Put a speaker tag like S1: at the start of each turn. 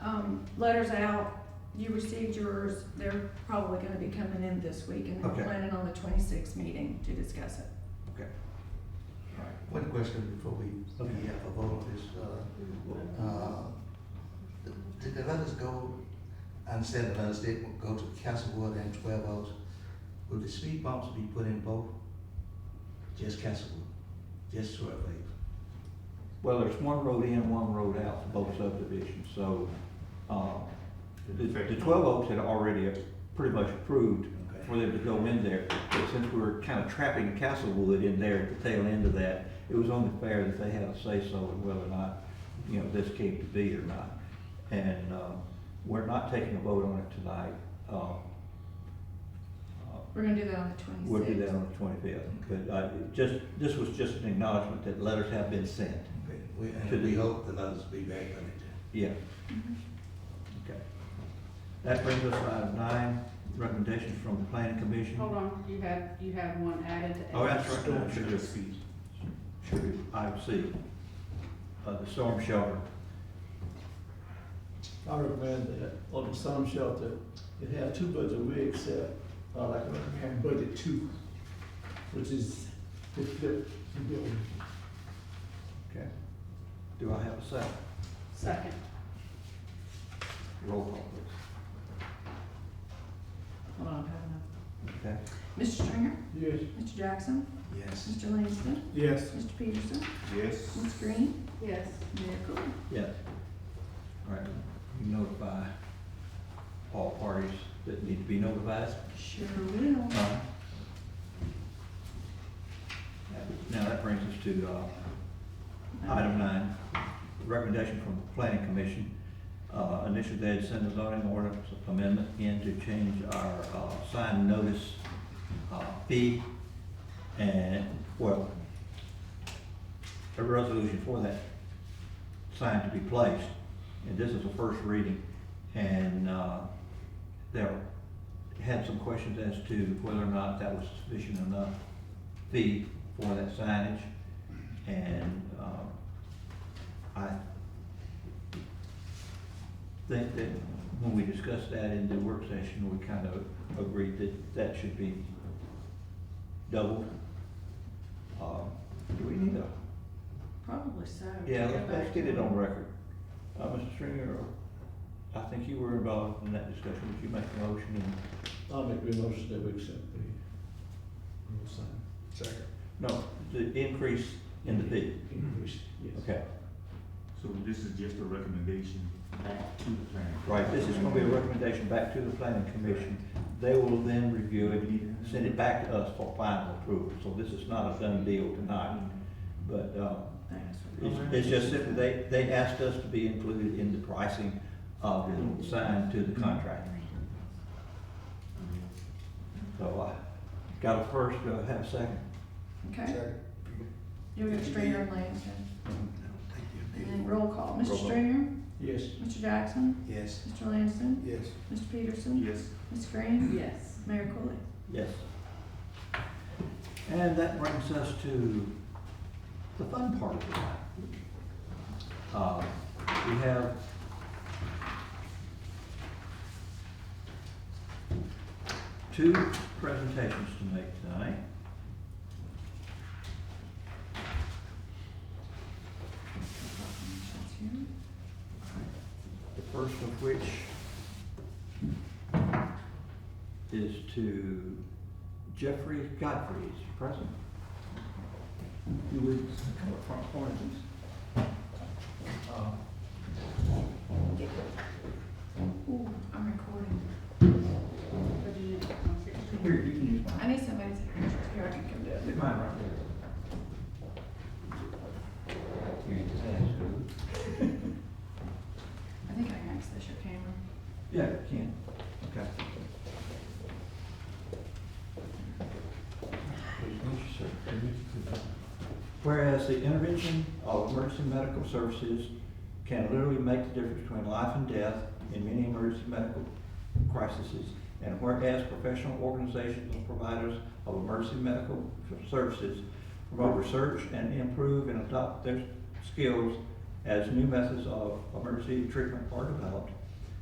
S1: um, letters out, you received yours, they're probably gonna be coming in this week, and we're
S2: Okay.
S1: planning on the twenty-sixth meeting to discuss it.
S3: One question before we, we have a vote is, uh, uh, did the letters go, I understand the letters did go to Castlewood and Twelve Oaks. Will the speed bumps be put in both? Just Castlewood, just Twelve Oaks?
S4: Well, there's one road in, one road out for both subdivisions, so, uh, the, the twelve oaks had already pretty much approved
S3: Okay.
S4: for them to go in there, but since we were kind of trapping Castlewood in there at the tail end of that, it was only fair that they had a say-so in whether or not, you know, this came to be or not. And, um, we're not taking a vote on it tonight, um, uh,
S1: We're gonna do that on the twenty-sixth.
S4: We'll do that on the twenty-fifth, but I, just, this was just an acknowledgement that letters have been sent.
S3: Okay, We,
S4: To
S3: and
S4: the-
S3: we hope the letters be back on it.
S4: Yeah.
S1: Mm-hmm.
S4: Okay. That brings us to item nine, recommendations from the planning commission.
S5: Hold on, you have, you have one added to.
S4: Oh, that's right, no, should just be, should be item C, uh, the storm shelter.
S6: I recommend that on the storm shelter, it have two budget we accept, uh, like I recommend budget two, which is the flip the building.
S4: Okay. Do I have a second?
S5: Second,
S4: Roll call, please.
S1: Hold on, I have enough.
S4: Okay.
S1: Mr. Stringer,
S6: Yes.
S1: Mr. Jackson,
S3: Yes.
S1: Mr. Langston,
S6: Yes.
S1: Mr. Peterson,
S2: Yes.
S1: Ms. Green,
S5: yes.
S1: Mayor Cool.
S4: Yes. All right, you notify all parties that need to be notified.
S1: Sure will.
S4: Uh, Now, that brings us to, uh, Item nine, recommendation from the planning commission, uh, initially they had sent a zoning ordinance amendment in to change our, uh, sign notice, uh, fee. And, well, a resolution for that sign to be placed. And this is the first reading, and, uh, there had some questions as to whether or not that was sufficient enough fee for that signage. And, um, I think that when we discussed that in the work session, we kind of agreed that that should be doubled. Um, Do we need a,
S1: Probably so.
S4: yeah,
S1: Go
S4: let's, let's
S1: back
S4: get it
S1: to-
S4: on record. Uh, Mr. Stringer, I think you were involved in that discussion, would you make a motion and
S6: I'll make the motion that we accept the, the sign.
S2: Second.
S4: No, the increase in the fee,
S6: Increase, yes.
S4: okay.
S2: So this is just a recommendation back to the planning.
S4: Right, this is gonna be a recommendation back to the planning commission. They will then review it, send it back to us for final approval. So this is not a done deal tonight, but, um,
S1: Thanks.
S4: it's, it's just simply, they, they asked us to be included in the pricing of the sign to the contractor. So I got a first, do I have a second?
S1: Okay, you have Stringer and Langston, and
S3: Thank
S1: then
S3: you.
S1: roll call.
S4: Roll
S1: Mr.
S4: call.
S1: Stringer,
S6: Yes.
S1: Mr. Jackson,
S3: Yes.
S1: Mr. Langston,
S3: Yes.
S1: Mr. Peterson,
S2: Yes.
S1: Ms. Green,
S5: Yes.
S1: Mayor Cooley.
S4: Yes. And that brings us to the fun part of it. Uh, We have two presentations to make tonight. The first of which is to Jeffrey Godfrey's present. You would come up front for me, please. Uh,
S1: Ooh, I'm recording.
S5: But you didn't- okay.
S4: Here, you can use mine.
S1: I need somebody to, here, I can come do it.
S4: Leave mine right there. You can ask.
S1: I think I can access your camera.
S4: Yeah, you can. Okay. Please mute yourself. Whereas the intervention of emergency medical services can literally make the difference between life and death in many emergency medical crises. And whereas professional organizations and providers of emergency medical services promote research and improve and adopt their skills as new methods of emergency treatment are developed